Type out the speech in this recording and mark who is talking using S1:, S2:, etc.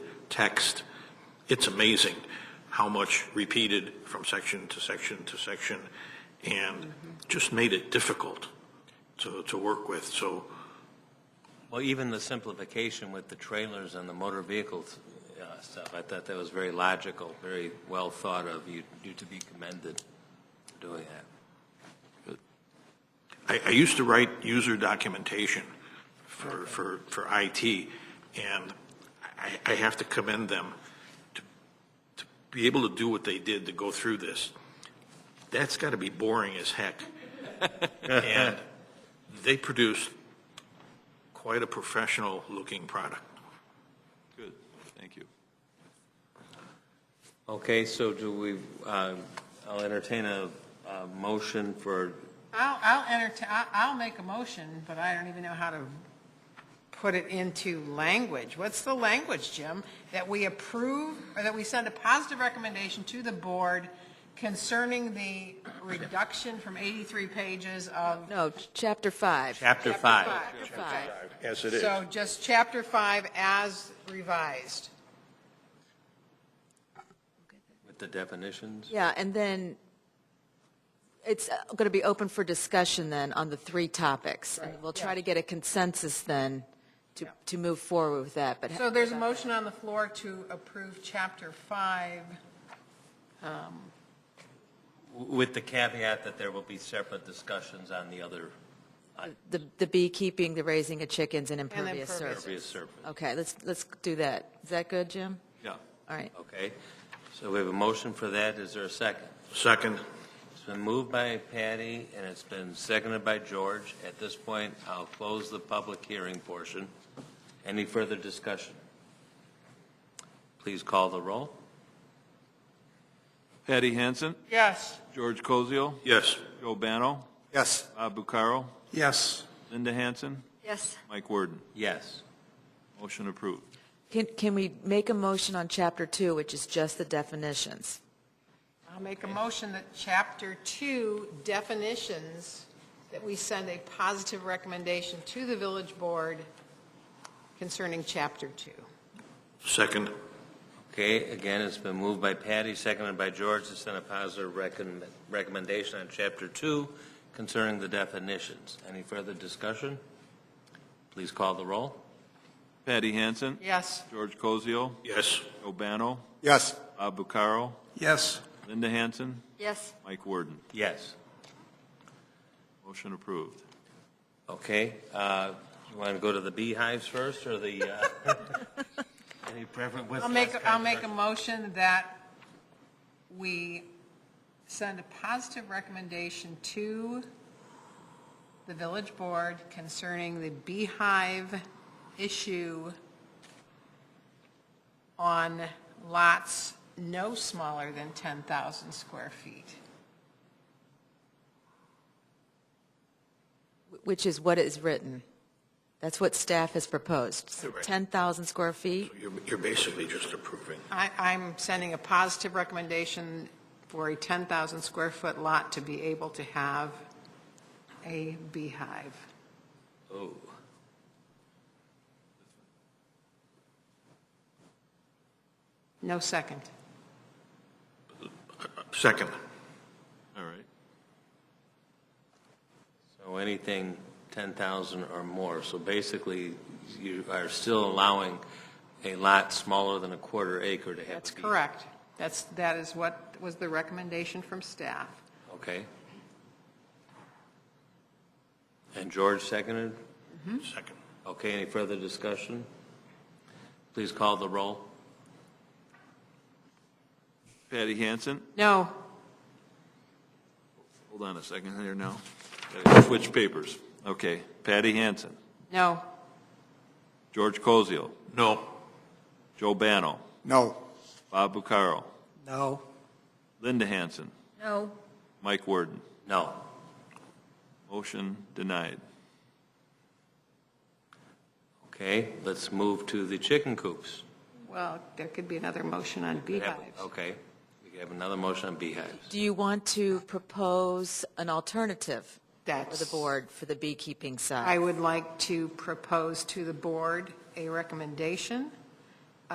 S1: text, it's amazing how much repeated from section to section to section, and just made it difficult to, to work with. So
S2: Well, even the simplification with the trailers and the motor vehicles uh, stuff, I thought that was very logical, very well thought of. You, you to be commended for doing that.
S1: I, I used to write user documentation for, for, for IT, and I, I have to commend them to, to be able to do what they did to go through this. That's got to be boring as heck. and they produced quite a professional looking product.
S3: Good, thank you.
S2: Okay, so do we, uh, I'll entertain a, a motion for,
S4: I'll, I'll entertain, I'll, I'll make a motion, but I don't even know how to put it into language. What's the language, Jim? That we approve, or that we send a positive recommendation to the board concerning the reduction from 83 pages of.
S5: No, ch- chapter five.
S2: chapter five.
S5: Chapter five.
S1: As it is.
S4: So just chapter five as revised.
S2: With the definitions?
S5: Yeah, and then it's going to be open for discussion then on the three topics. And we'll try to get a consensus then to, to move forward with that, but.
S4: So there's a motion on the floor to approve chapter five.
S2: W- With the caveat that there will be separate discussions on the other
S5: The, the beekeeping, the raising of chickens and impervious
S4: impervious.
S5: surface.
S2: previous surface.
S5: Okay, let's, let's do that. Is that good, Jim?
S2: Yeah.
S5: Uh, All right.
S2: Okay, so we have a motion for that. Is there a second?
S1: Second,
S2: It's been moved by Patty, and it's been seconded by George. At this point, I'll close the public hearing portion. Any further discussion? Please call the roll.
S3: Patty Hansen,
S4: Yes.
S3: George Cosio,
S1: yes.
S3: Joe Bano,
S6: Yes.
S3: Bob Bucaro,
S6: Yes.
S3: Linda Hansen,
S5: Yes.
S3: Mike Worden.
S2: Yes.
S3: Motion approved.
S5: Can, can we make a motion on chapter two, which is just the definitions?
S4: I'll make a motion that Chapter 2 definitions, that we send a positive recommendation to the village board concerning Chapter 2.
S1: Second,
S2: Okay, again, it's been moved by Patty, seconded by George, to send a positive recommend- recommendation on Chapter 2 concerning the definitions. Any further discussion? Please call the roll.
S3: Patty Hansen,
S4: Yes.
S3: George Cosio,
S1: yes.
S3: Joe Bano,
S6: Yes.
S3: Bob Bucaro,
S6: Yes.
S3: Linda Hansen,
S5: Yes.
S3: Mike Worden.
S2: Yes.
S3: Motion approved.
S2: Okay, uh, you want to go to the beehives first, or the, uh, any preference? what's
S4: I'll
S2: the
S4: make,
S2: last
S4: I'll
S2: kind
S4: make a
S2: first?
S4: motion that we send a positive recommendation to the village board concerning the beehive issue on lots no smaller than 10,000 square feet.
S5: Which is what is written. That's what staff has proposed. So 10,000 square feet?
S1: You're, you're basically just approving.
S4: I, I'm sending a positive recommendation for a 10,000 square foot lot to be able to have a beehive.
S2: Oh.
S4: No second.
S1: Second,
S3: All right.
S2: So anything 10,000 or more, so basically, you are still allowing a lot smaller than a quarter acre to have a
S4: That's
S2: bee.
S4: correct. That's, that is what was the recommendation from staff.
S2: Okay. And George seconded? Hmm?
S1: second.
S2: Okay, any further discussion? Please call the roll.
S3: Patty Hansen,
S4: No,
S3: hold on a second here now. Gotta Switch papers. Okay, Patty Hansen,
S4: no,
S3: George Cosio,
S1: No,
S3: Joe Bano,
S6: No.
S3: Bob Bucaro,
S6: No.
S3: Linda Hansen,
S5: No.
S3: Mike Worden.
S2: No.
S3: Motion denied.
S2: Okay, let's move to the chicken coops.
S4: well, there could be another motion on
S2: We have-
S4: beehives.
S2: Okay, we have another motion on beehives.
S5: Do you want to propose an alternative for the
S4: That's,
S5: board for the beekeeping
S4: I
S5: side?
S4: would like to propose to the board a recommendation